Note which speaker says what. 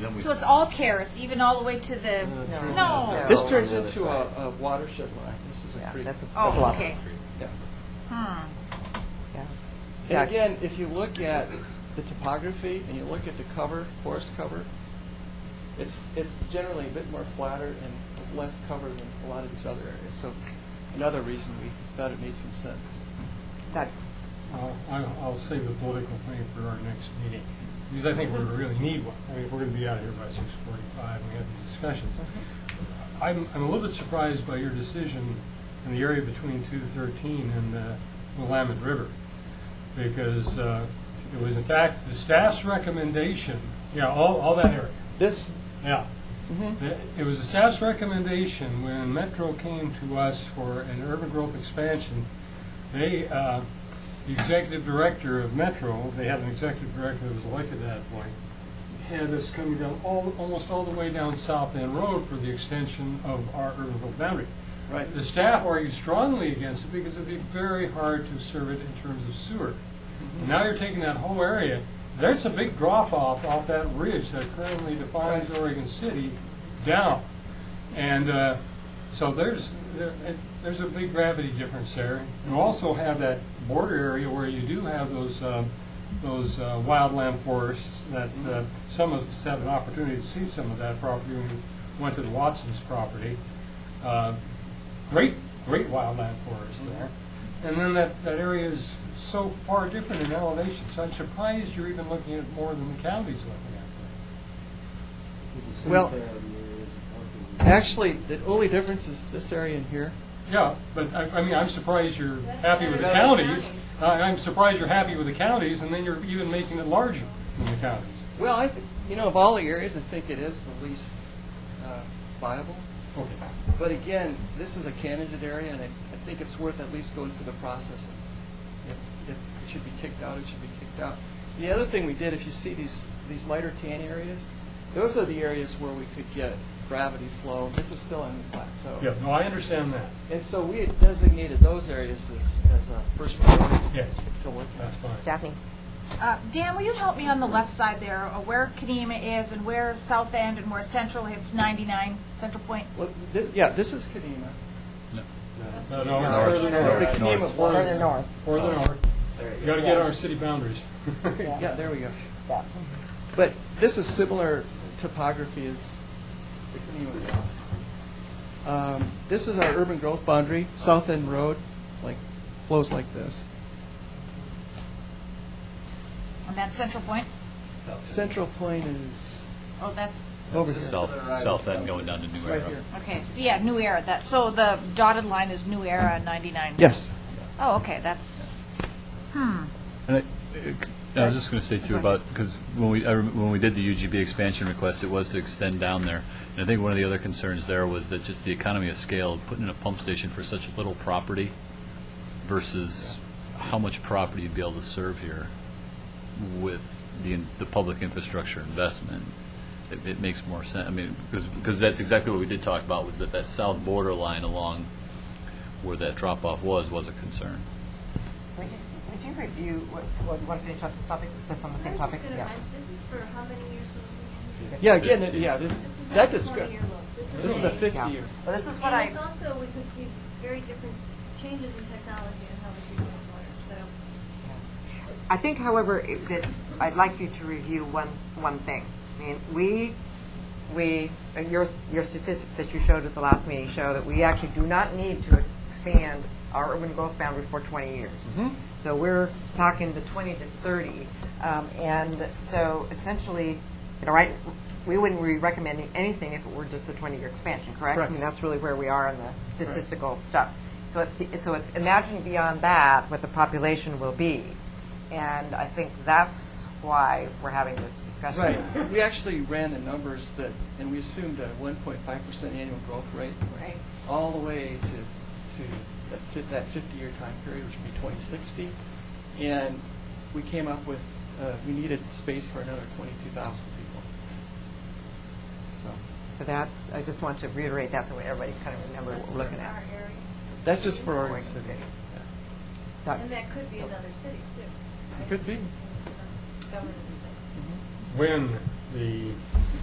Speaker 1: then we.
Speaker 2: So it's all Karis, even all the way to the, no.
Speaker 3: This
Speaker 4: No.
Speaker 3: turns
Speaker 4: On the other
Speaker 3: into a a watershed line, this is a
Speaker 4: Yeah,
Speaker 3: creek.
Speaker 4: that's a a
Speaker 2: Oh,
Speaker 4: bluff.
Speaker 2: okay.
Speaker 3: Yeah.
Speaker 2: Hmm.
Speaker 4: Yeah. Yeah.
Speaker 3: And again, if you look at the topography and you look at the cover, forest cover, it's, it's generally a bit more flatter and has less cover than a lot of these other areas. So it's another reason we thought it made some sense.
Speaker 4: That,
Speaker 5: I'll, I'll I'll save the political thing for our next meeting, because I think we really need one. I mean, if we're going to be out of here by six forty-five, we have these discussions. I'm, I'm a little bit surprised by your decision in the area between two thirteen and the Willamette River, because uh, it was in fact the staff's recommendation, yeah, all, all that area.
Speaker 3: This,
Speaker 5: Yeah. It- It was the staff's recommendation when Metro came to us for an urban growth expansion. They, uh, the executive director of Metro, they had an executive director that was elected at that point, had us coming down all, almost all the way down South End Road for the extension of our urban growth boundary.
Speaker 3: right,
Speaker 5: The staff argued strongly against it because it'd be very hard to serve it in terms of sewer. And Now you're taking that whole area, there's a big drop-off off that ridge that currently defines Oregon City down. And uh, so there's, there- it- there's a big gravity difference there. You also have that border area where you do have those, uh, those uh, wildland forests that uh, some of us have an opportunity to see some of that property when we went to the Watson's property. Uh, Great, great wildland forest there. And then that, that area is so far different in elevation, so I'm surprised you're even looking at more than the county's looking at.
Speaker 3: well, actually, the only difference is this area in here.
Speaker 5: Yeah, but I, I mean, I'm surprised you're happy with the counties. I- I'm surprised you're happy with the counties, and then you're even making it larger than the counties.
Speaker 3: Well, I, thi- you know, of all the areas, I think it is the least uh, viable.
Speaker 5: Okay.
Speaker 3: But again, this is a candidate area, and I, I think it's worth at least going through the process. If, if it should be kicked out, it should be kicked out. The other thing we did, if you see these, these lighter tan areas, those are the areas where we could get gravity flow. This is still on the plateau.
Speaker 5: Yeah, no, I understand that.
Speaker 3: And so we had designated those areas as, as a first priority
Speaker 5: Yes,
Speaker 3: to look at.
Speaker 5: that's fine.
Speaker 4: Daphne,
Speaker 2: Uh, Dan, will you help me on the left side there, uh, where Kadima is and where South End and where Central hits 99, Central Point?
Speaker 3: Well, this, yeah, this is Kadima.
Speaker 5: No,
Speaker 1: North.
Speaker 5: no, further
Speaker 3: The
Speaker 5: north,
Speaker 3: Kadima
Speaker 4: further
Speaker 3: was,
Speaker 4: north,
Speaker 5: further north. You gotta get our city boundaries.
Speaker 3: yeah, there we go.
Speaker 4: yeah.
Speaker 3: But this is similar topography as the Kenema Cross. Um, This is our urban growth boundary, South End Road, like, flows like this.
Speaker 2: And that's Central Point?
Speaker 3: Central Plain is
Speaker 2: Oh, that's,
Speaker 3: over here,
Speaker 1: South, south end going down to New
Speaker 3: right
Speaker 1: Era.
Speaker 3: here.
Speaker 2: okay, s- yeah, New Era, that, so the dotted line is New Era 99?
Speaker 3: Yes.
Speaker 2: Oh, okay, that's,
Speaker 1: And I, I was just going to say too about, because when we, I rem- when we did the UGB expansion request, it was to extend down there. And I think one of the other concerns there was that just the economy of scale, putting in a pump station for such little property versus how much property you'd be able to serve here with the, in- the public infrastructure investment. It, it makes more sense, I mean, because, because that's exactly what we did talk about, was that that south border line along where that drop-off was, was a concern.
Speaker 4: Would you- would you review, what, what, want to finish off this topic, is this on the
Speaker 6: I'm
Speaker 4: same
Speaker 6: just
Speaker 4: topic?
Speaker 6: gonna-
Speaker 4: Yeah.
Speaker 6: I- This is for how many years we're looking at?
Speaker 3: Yeah, again, it- yeah, this,
Speaker 6: This is not
Speaker 3: that
Speaker 6: the
Speaker 3: describes,
Speaker 6: 20-year look.
Speaker 3: this is the
Speaker 6: a-
Speaker 4: Yeah.
Speaker 3: 50 year.
Speaker 4: Well, this is what
Speaker 6: And
Speaker 4: I,
Speaker 6: it's also, we could see very different changes in technology and how we treat wastewater, so.
Speaker 4: I think however, it- that I'd like you to review one, one thing. I mean, we, we, uh, your, your statistic that you showed at the last meeting show that we actually do not need to expand our urban growth boundary for 20 years. So we're talking the 20 to 30. Um, And so essentially, you know, right, we wouldn't be recommending anything if it were just the 20-year expansion, correct? I mean,
Speaker 3: Correct.
Speaker 4: that's really where we are in the statistical stuff. So it's, it's- so it's imagine beyond that what the population will be. And I think that's why we're having this discussion.
Speaker 3: Right. We actually ran the numbers that, and we assumed a 1.5% annual growth rate.
Speaker 6: Right.
Speaker 3: all the way to, to that fif- that 50-year time period, which would be 2060. And we came up with, uh, we needed space for another 22,000 people. So,
Speaker 4: So that's, I just want to reiterate that so everybody kind of remembers what we're looking
Speaker 6: Our
Speaker 4: at.
Speaker 6: area.
Speaker 3: that's just for Oregon
Speaker 4: Oregon
Speaker 3: City.
Speaker 4: City.
Speaker 3: Yeah.
Speaker 4: Doc-
Speaker 6: And that could be another city, too.
Speaker 3: It could be.
Speaker 6: Governance.
Speaker 5: When the